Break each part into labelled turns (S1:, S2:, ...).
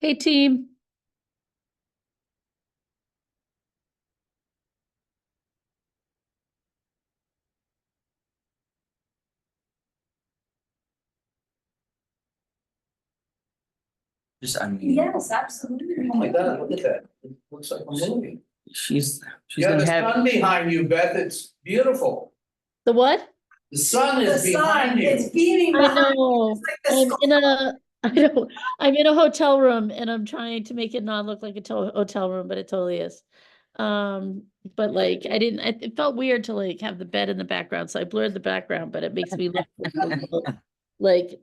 S1: Hey, team.
S2: Just unmute.
S3: Yes, absolutely.
S4: Oh my God, look at that. It Looks like a movie.
S2: She's, she's
S4: Yeah,
S2: gonna
S4: the
S2: have,
S4: sun behind you, Beth. It's beautiful.
S1: The what?
S4: The sun
S3: The
S4: is
S3: sun
S4: behind
S3: is
S4: you.
S3: beaming behind
S1: Oh,
S3: us like the
S1: I'm
S3: sky.
S1: in a, I don't, I'm in a hotel room and I'm trying to make it not look like a to- hotel room, but it totally is. Um, but like, I didn't, I- it felt weird to like have the bed in the background, so I blurred the background, but it makes me look a little, like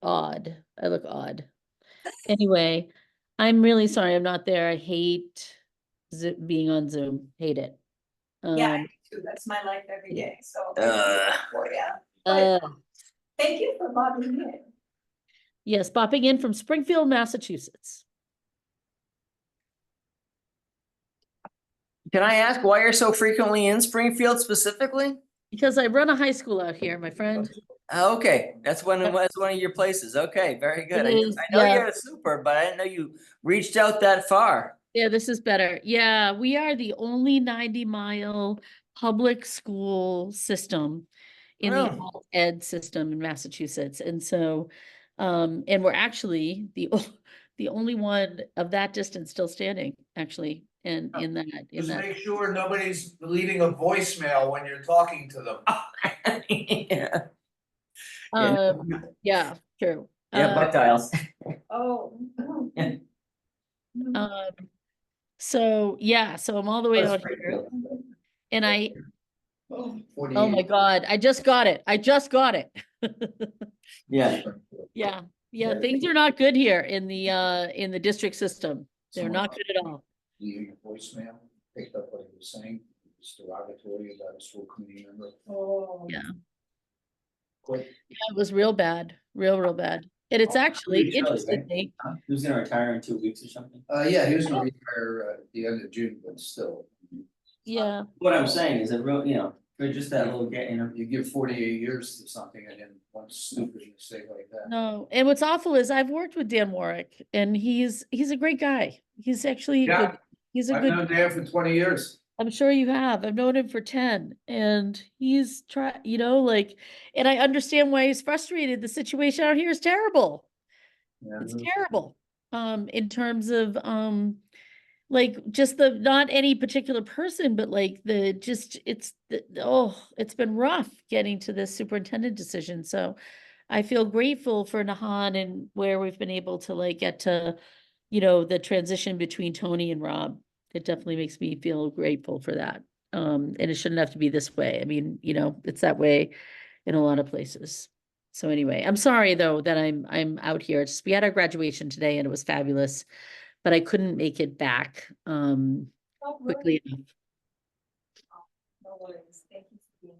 S1: odd. I look odd. Anyway, I'm really sorry I'm not there. I hate Zo- being on Zoom, hate it.
S3: Yeah, I
S1: Um,
S3: do too. that's my life every day, so.
S2: Ugh.
S3: Oh, yeah.
S1: uh,
S3: Thank you for logging in.
S1: Yes, bopping in from Springfield, Massachusetts.
S2: can I ask why you're so frequently in Springfield specifically?
S1: Because I run a high school out here, my friend.
S2: Oh, Okay, that's one,
S1: Yep.
S2: that's one of your places. Okay, very good. I
S1: It
S2: knew-
S1: is,
S2: I know
S1: yeah.
S2: you're a super, but I didn't know you reached out that far.
S1: Yeah, this is better. Yeah, we are the only ninety mile public school system in the
S2: Really?
S1: alt ed system in Massachusetts. And so, um, and we're actually the, o- the only one of that distance still standing, actually, in,
S4: Oh,
S1: in that, in
S4: Just
S1: that.
S4: make sure nobody's leaving a voicemail when you're talking to them.
S2: Yeah, yeah.
S1: Um, yeah, true.
S2: yeah,
S1: Uh,
S2: Buckeyes.
S3: Oh. no.
S2: Yeah.
S3: Mm.
S1: um, so, yeah, so I'm all the way
S4: That's
S1: out
S4: pretty
S1: here
S4: good.
S1: and I,
S4: Oh,
S1: Oh my
S4: 48.
S1: God, I just got it. I just got it.
S2: Yeah,
S1: Yeah, yeah,
S4: Yeah.
S1: things are not good here in the, uh, in the district system. They're
S4: Someone
S1: not
S4: else
S1: good at all.
S4: leaving a voicemail, picked up what he was saying, it's derogatory about a school committee member.
S3: Oh.
S1: Um, Yeah.
S4: Quit.
S1: Yeah, It was real bad, real, real bad. And it's
S4: Oh,
S1: actually
S4: pretty sure, right?
S1: interestingly,
S2: who's gonna retire in two weeks or something?
S4: Uh, yeah, he was gonna retire uh, at the end of June, but still,
S1: yeah,
S2: What I'm saying is that, real- you know, for just that little get interview.
S4: you give forty-eight years to something and then one stupid mistake like that.
S1: no. And what's awful is I've worked with Dan Warwick and he's, he's a great guy. He's actually, a
S4: Yeah.
S1: good- he's a
S4: I've
S1: good,
S4: known Dan for twenty years.
S1: I'm sure you have. I've known him for ten and he's try, you know, like, and I understand why he's frustrated. The situation out here is terrible.
S4: Yeah.
S1: it's terrible um in terms of um like just the not any particular person but like the just it's the, the- oh it's been rough getting to this superintendent decision so i feel grateful for nahan and where we've been able to like get to you know the transition between tony and rob it definitely makes me feel grateful for that um and it shouldn't have to be this way i mean you know it's that way in a lot of places so anyway, I'm sorry though that I'm I'm out here. It's we had our graduation today and it was fabulous, but I couldn't make it back um
S3: Don't worry,
S1: quickly enough.
S3: No worries, thank you for being.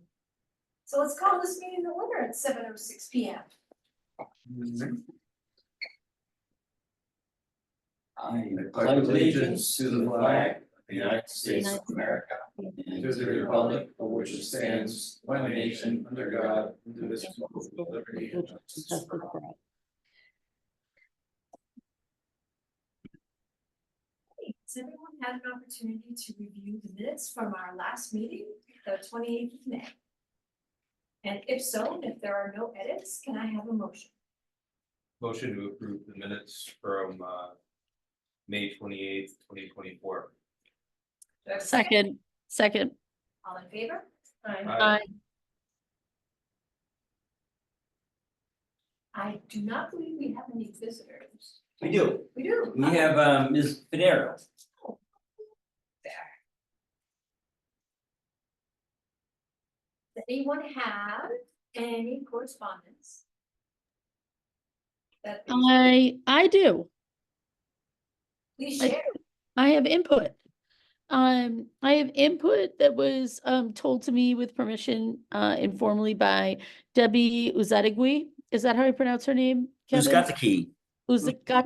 S3: So let's call this meeting the winner at seven oh six P M.
S2: I
S4: pledge allegiance to the flag
S2: of the United
S1: States of
S2: America and to the republic for which it stands, one nation, under God, indivisible, with liberty and justice for all.
S3: Hey, Has everyone had an opportunity to review the minutes from our last meeting, the twenty eighth of May? And if so, if there are no edits, can I have a motion?
S5: Motion to approve the minutes from uh May twenty eighth, twenty twenty four.
S3: Do I have a
S1: Second, second,
S3: All in favor? Aye.
S1: I
S3: I do not believe we have any visitors.
S2: We do,
S3: We do.
S2: we have um Ms. Pinero.
S3: Does anyone have any correspondence? That
S1: I I do.
S3: please
S1: I
S3: share.
S1: I have input. Um, I have input that was um told to me with permission uh informally by Debbie Uzadegui. Is that how you pronounce her name? Kevin?
S2: key?
S1: Uzak-